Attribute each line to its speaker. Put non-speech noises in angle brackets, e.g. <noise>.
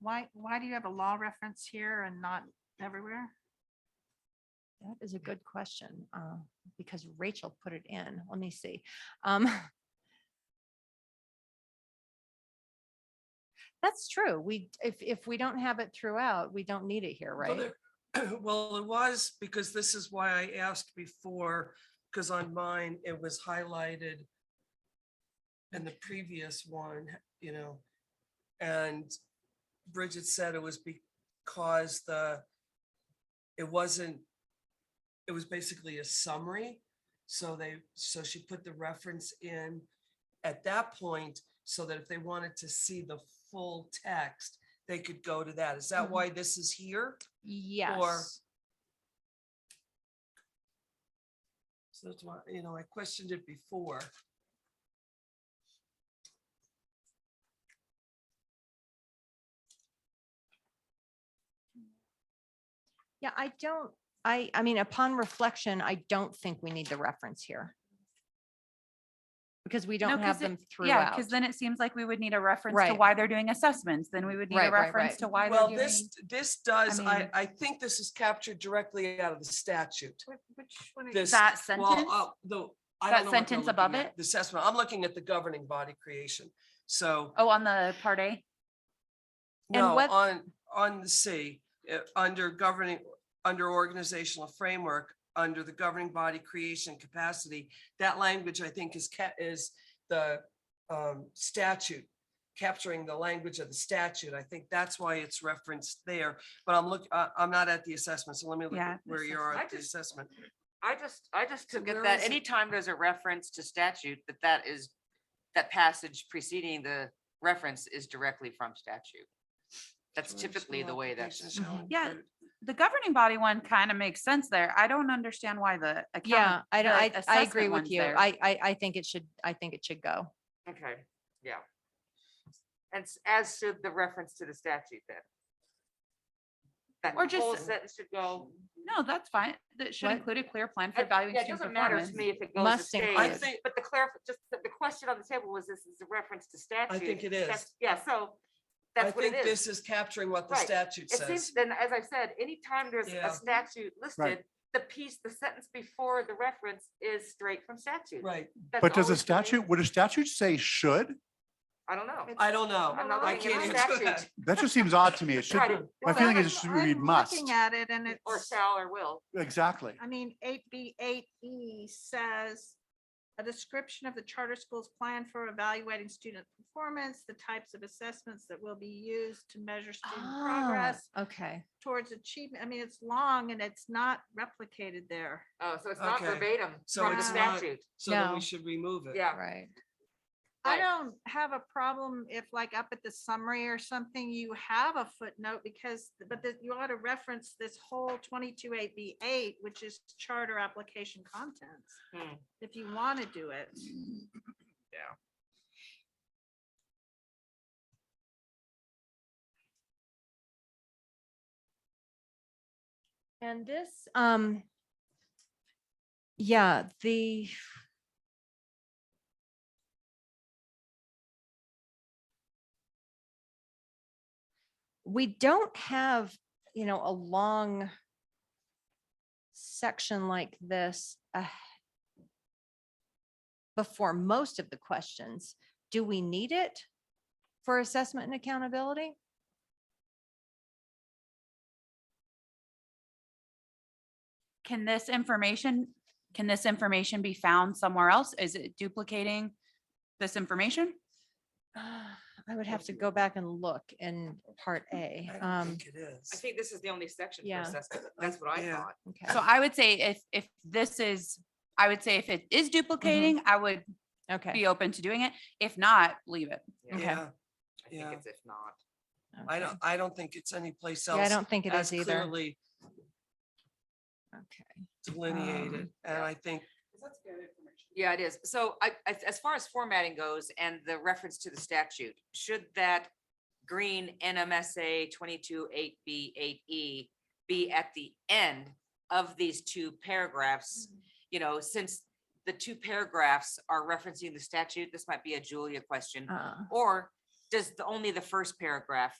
Speaker 1: Why, why do you have a law reference here and not everywhere?
Speaker 2: That is a good question, uh, because Rachel put it in. Let me see. Um, <laughs> That's true. We, if, if we don't have it throughout, we don't need it here,
Speaker 3: Well,
Speaker 2: right?
Speaker 3: there- <clears throat> Well, it was because this is why I asked before, because on mine, it was highlighted in the previous one, you know, and Bridget said it was because the, it wasn't, it was basically a summary. So they, so she put the reference in at that point so that if they wanted to see the full text, they could go to that. Is that
Speaker 2: Mhm.
Speaker 3: why this is here?
Speaker 2: Yes.
Speaker 3: So that's why, you know, I questioned it before.
Speaker 2: Yeah, I don't, I, I mean, upon reflection, I don't think we need the reference here. Because we don't
Speaker 4: 'cause
Speaker 2: have
Speaker 4: it-
Speaker 2: them
Speaker 4: Yeah,
Speaker 2: throughout.
Speaker 4: because then it seems like we would need a reference to
Speaker 2: Right.
Speaker 4: why they're doing assessments, then we would need
Speaker 2: Right,
Speaker 4: a
Speaker 2: right,
Speaker 4: reference
Speaker 2: right.
Speaker 4: to why they're
Speaker 3: Well,
Speaker 4: doing.
Speaker 3: this, this does, I,
Speaker 4: mean-
Speaker 3: I think this is captured directly out of the statute.
Speaker 1: Which which one? are you-
Speaker 3: This,
Speaker 4: That
Speaker 3: well,
Speaker 4: sentence,
Speaker 3: uh, the. I
Speaker 4: That
Speaker 3: don't know what they're
Speaker 4: sentence
Speaker 3: looking
Speaker 4: above
Speaker 3: at,
Speaker 4: it?
Speaker 3: The assessment. I'm looking at the governing body creation. So,
Speaker 4: oh, on the part A,
Speaker 2: And
Speaker 3: no,
Speaker 2: what-
Speaker 3: on, on the C, uh, under governing, under organizational framework, under the governing body creation capacity, that language, I think, is ca- is the um, statute, capturing the language of the statute. I think that's why it's referenced there. But I'm look, I, I'm not at the assessment, so let me look
Speaker 4: Yeah,
Speaker 3: at where you are
Speaker 4: assessment.
Speaker 3: at
Speaker 5: I
Speaker 3: the
Speaker 5: just-
Speaker 3: assessment.
Speaker 5: I just, I just took
Speaker 3: Where
Speaker 5: it that
Speaker 3: is it?
Speaker 5: anytime there's a reference to statute, that that is, that passage preceding the reference is directly from statute. That's typically the way that's.
Speaker 3: Application shall
Speaker 4: Yeah,
Speaker 3: include-
Speaker 4: the governing body one kind of makes sense there. I don't understand why the. account-
Speaker 2: Yeah, I, don't-
Speaker 4: the
Speaker 2: I, I agree
Speaker 4: assessment
Speaker 2: with
Speaker 4: one's
Speaker 2: you.
Speaker 4: there.
Speaker 2: I, I, I think it should, I think it should go.
Speaker 5: Okay, yeah. And s- as should the reference to the statute then. That
Speaker 4: Or just-
Speaker 5: whole sentence should go.
Speaker 4: No, that's fine. That should
Speaker 2: What?
Speaker 4: include a clear plan for
Speaker 5: I-
Speaker 4: valuing
Speaker 5: yeah, It
Speaker 4: student
Speaker 5: doesn't matter
Speaker 4: performance.
Speaker 5: to me if it goes to
Speaker 2: Must
Speaker 5: state.
Speaker 2: include.
Speaker 3: I think,
Speaker 5: But the clarif, just the, the question on the table was, this is a reference to statute.
Speaker 3: think it
Speaker 5: That's-
Speaker 3: is.
Speaker 5: Yeah, so
Speaker 3: I
Speaker 5: that's what
Speaker 3: think
Speaker 5: it is.
Speaker 3: this is capturing what the
Speaker 5: Right.
Speaker 3: statute
Speaker 5: It seems,
Speaker 3: says.
Speaker 5: then, as I said, anytime there's
Speaker 3: Yeah.
Speaker 5: a statute listed, the piece, the sentence before the reference is straight from statute.
Speaker 3: Right.
Speaker 5: That's
Speaker 6: But
Speaker 5: always
Speaker 6: does a
Speaker 5: the way-
Speaker 6: statute, would a statute say should?
Speaker 5: I don't know.
Speaker 3: I don't know.
Speaker 5: I'm not
Speaker 3: I
Speaker 5: looking at
Speaker 3: can't
Speaker 5: the
Speaker 3: answer that.
Speaker 5: statute.
Speaker 6: That just seems odd to me. It should,
Speaker 5: <laughs> Right.
Speaker 6: my
Speaker 5: Well,
Speaker 6: feeling
Speaker 5: I'm-
Speaker 6: is it should read
Speaker 1: I'm
Speaker 6: must.
Speaker 1: Looking at it and
Speaker 5: Or
Speaker 1: it's,
Speaker 5: shall or will.
Speaker 6: Exactly.
Speaker 1: I mean, eight B eight E says a description of the charter school's plan for evaluating student performance, the types of assessments that will be used to measure student
Speaker 2: Ah,
Speaker 1: progress
Speaker 2: Okay.
Speaker 1: towards achievement. I mean, it's long and it's not replicated there.
Speaker 5: Oh, so it's not
Speaker 3: Okay.
Speaker 5: verbatim
Speaker 3: So
Speaker 5: from the
Speaker 1: it's not-
Speaker 5: statute.
Speaker 3: So then
Speaker 2: No.
Speaker 3: we should remove it.
Speaker 5: Yeah.
Speaker 2: Right.
Speaker 1: I
Speaker 5: Right.
Speaker 1: don't have a problem if like up at the summary or something, you have a footnote because, but that you ought to reference this whole twenty-two eight B eight, which is charter application contents.
Speaker 5: Hmm.
Speaker 1: If you want to do it.
Speaker 2: And this, um, yeah, the. We don't have, you know, a long section like this uh, before most of the questions. Do we need it for assessment and accountability?
Speaker 4: Can this information, can this information be found somewhere else? Is it duplicating this information?
Speaker 2: Ah, I would have to go back and look in part A.
Speaker 3: I don't
Speaker 2: Um,
Speaker 3: think it
Speaker 5: I
Speaker 3: is.
Speaker 5: think this is the only section for
Speaker 2: Yeah.
Speaker 5: assessment. That's what I
Speaker 3: Yeah.
Speaker 5: thought.
Speaker 2: okay,
Speaker 4: So I would say if, if this is, I would say if it is duplicating, I would
Speaker 2: okay.
Speaker 4: be open to doing it. If not, leave it.
Speaker 5: Yeah,
Speaker 2: Okay.
Speaker 3: Yeah,
Speaker 5: I
Speaker 3: yeah.
Speaker 5: think it's if not.
Speaker 3: I
Speaker 2: okay.
Speaker 3: don't, I don't think it's anyplace else.
Speaker 2: Yeah, I don't think it
Speaker 3: as
Speaker 2: is either.
Speaker 3: clearly
Speaker 2: Okay. Um,
Speaker 3: Delineated, and
Speaker 5: yeah.
Speaker 3: I think,
Speaker 5: Yeah, it is. So I, I- as far as formatting goes and the reference to the statute, should that green NMSA twenty-two eight B eight E be at the end of these two paragraphs? You know, since the two paragraphs are referencing the statute, this might be a Julia question.
Speaker 2: Uh,
Speaker 5: Or does the, only the first paragraph